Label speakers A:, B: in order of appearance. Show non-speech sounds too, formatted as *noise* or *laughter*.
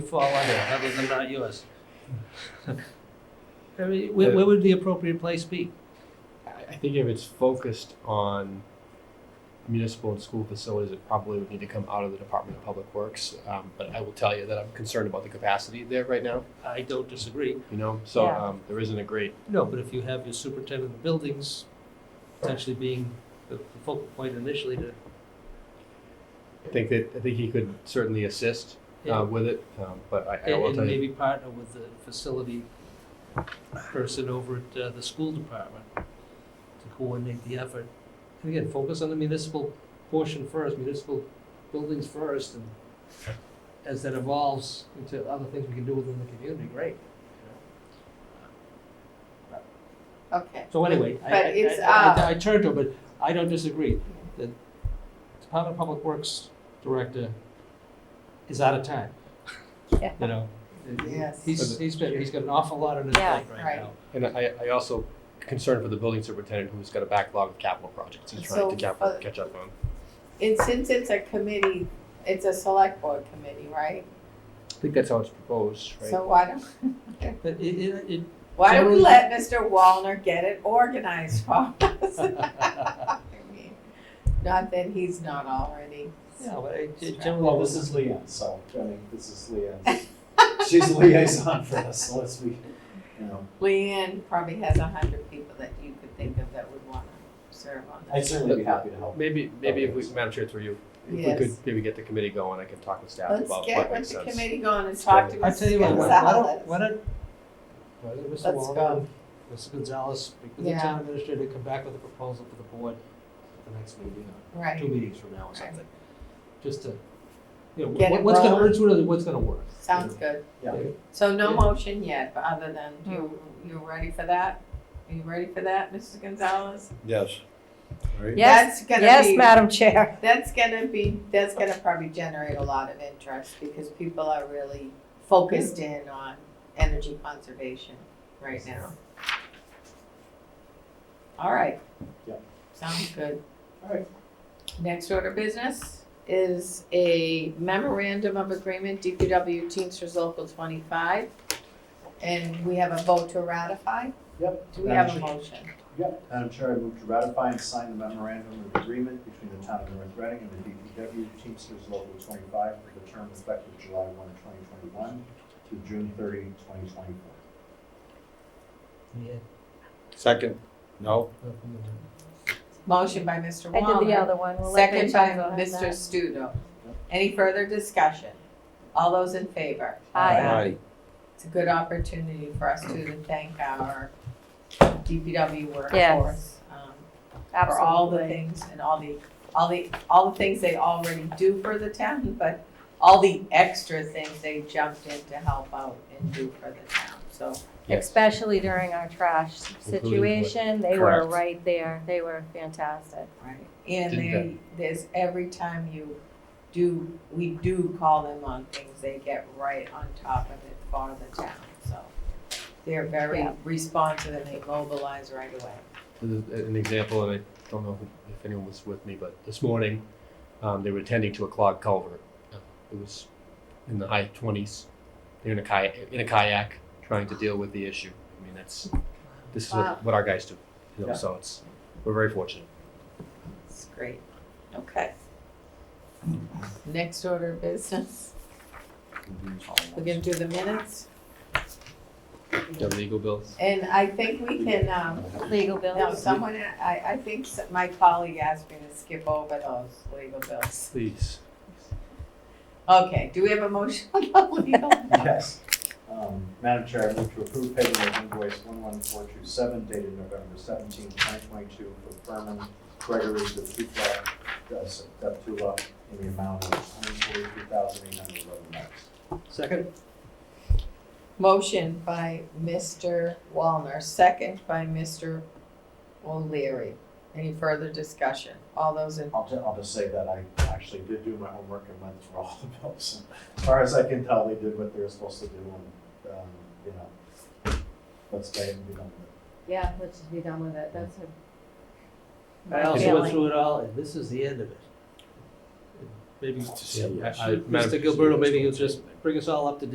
A: fall under, other than not *laughs* yours. Very- Where, where would the appropriate place be?
B: I I think if it's focused on municipal and school facilities, it probably would need to come out of the Department of Public Works. Um, but I will tell you that I'm concerned about the capacity there right now,
A: I don't disagree.
B: you know, so,
C: Yeah.
B: um, there isn't a great,
A: No, but if you have your superintendent of buildings potentially being the the focal point initially to,
B: I think that, I think he could certainly assist, uh,
A: and
B: with it, um, but I, I will
A: and
B: tell you.
A: maybe partner with the facility person over at uh, the school department to coordinate the effort. And again, focus on the municipal portion first, municipal buildings first, and as that evolves into other things we can do within the community, great.
C: Okay.
A: So anyway, I,
C: But
A: I-
C: it's,
A: I,
C: uh,
A: I, I turned to her, but I don't disagree. The Department of Public Works Director is out of time,
C: Yeah.
A: you know?
C: Yes.
A: He's, he's been, he's got an awful lot on his plate
C: Yeah,
A: right
C: right.
A: now.
B: And I, I also concerned for the building superintendent who's got a backlog of capital projects he's trying
C: So,
B: to capital,
C: uh,
B: catch up on.
C: And since it's a committee, it's a select board committee, right?
B: I think that's how it's proposed,
C: So why don't, *laughs*
A: But it, it, it,
C: why don't
A: Generally-
C: we let Mr. Wallner get it organized for us? *laughs* I mean, Not that he's not already.
A: yeah, well, it- it
D: Well,
A: generally,
D: this is Leanne, so, I mean, this is Leanne. She's a liaison for us, so let's be, you know,
C: Leanne probably has a hundred people that you could think of that would wanna serve on
D: I'd
C: this.
D: certainly be happy to help.
B: Maybe, maybe if we, Madam Chair, through you, if we could
C: Yes.
B: maybe get the committee going, I can talk with staff
C: Let's
B: about
C: get
B: what
C: with
B: makes sense.
C: the committee going and talk to
B: I
C: Mrs.
A: I
C: Gonzalez.
A: tell you what, why why don't, why don't, why don't Mr.
C: Let's
A: Wallner,
C: go.
A: Mr. Gonzalez, speak with the
C: Yeah.
A: town administrator, come back with a proposal for the board at the next meeting, or two
C: Right,
A: meetings from now or something. Just to, you know,
C: Get
A: what-
C: it
A: what's gonna,
C: rolling.
A: what's really, what's gonna work?
C: sounds good.
D: Yeah.
C: So no
A: Yeah. Hmm.
C: motion yet, but other than, you, you ready for that? Are you ready for that, Mrs. Gonzalez?
E: Yes. Right?
C: Yes,
F: Yes,
C: yes,
F: yes, Madam Chair.
C: That's gonna be, that's gonna probably generate a lot of interest because people are really focused
F: Hmm.
C: in on energy conservation right now. All right.
D: Yeah.
C: Sounds good.
D: All right.
C: Next order of business is a memorandum of agreement, DPW Teamsters Local twenty-five. And we have a vote to ratify.
D: Yep.
C: Do we have a motion?
D: Yep, Madam Chair, I move to ratify and sign the memorandum of agreement between the town of North Reading and the DPW Teamsters Local twenty-five for the term effective July one, twenty twenty-one to June 30, 2024.
A: Yeah.
E: Second, no?
C: Motion by Mr.
F: I
C: Wallner.
F: did the other one. We'll let
C: Second
F: Rachel
C: by
F: go ahead and
C: Mr.
F: that.
C: Studo. Any further discussion? All those in favor?
F: Aye.
C: It's a good opportunity for us too to thank our DPW workforce.
F: Yes.
C: um, For all the
F: Absolutely.
C: things and all the, all the, all the things they already do for the town, but all the extra things they jumped in to help out and do for the town, so.
E: Yes.
F: Especially during our trash situation, they were
E: Correct.
F: right there. They were fantastic.
C: Right. And
B: Didn't
C: they, there's, every time you do, we do call them on things, they get right on top of it for the town, so. They're very
F: Yeah.
C: responsive and they mobilize right away.
B: This is an example, and I don't know who- if anyone was with me, but this morning, um, they were tending to a clogged culvert. Uh, It was in the high twenties. They're in a kayak, in a kayak, trying to deal with the issue. I mean, that's, this is
C: Wow.
B: what, what our guys do, you know,
D: Yeah.
B: so it's, we're very fortunate.
C: It's great. Okay. Next order of business, we're gonna do the minutes,
B: The legal bills.
C: and I think we can, um,
F: Legal
C: no,
F: bills.
C: someone, I, I think s- my colleague asked me to skip over those legal bills.
B: Please.
C: Okay, do we have a motion on the legal? *laughs*
D: Yes. Um, Madam Chair, I move to approve payment of invoice one one four two seven dated November seventeenth, twenty twenty-two for Furman Gregory Deptula, Deptula in the amount of one hundred forty-three thousand eight hundred eleven dollars.
A: Second?
C: Motion by Mr. Wallner, second by Mr. O'Leary. Any further discussion? All those in,
D: I'll just, I'll just say that I actually did do my homework and went through all the bills. *laughs* As far as I can tell, they did what they were supposed to do and, um, you know, let's pay and be done with it.
F: Yeah, let's just be done with it. That's a.
A: I
F: my
A: also went
F: feeling.
A: through it all, and this is the end of it. Maybe,
B: Yeah, I- I- Madam-
A: Mr. Gilberto, maybe you'll just bring us all up to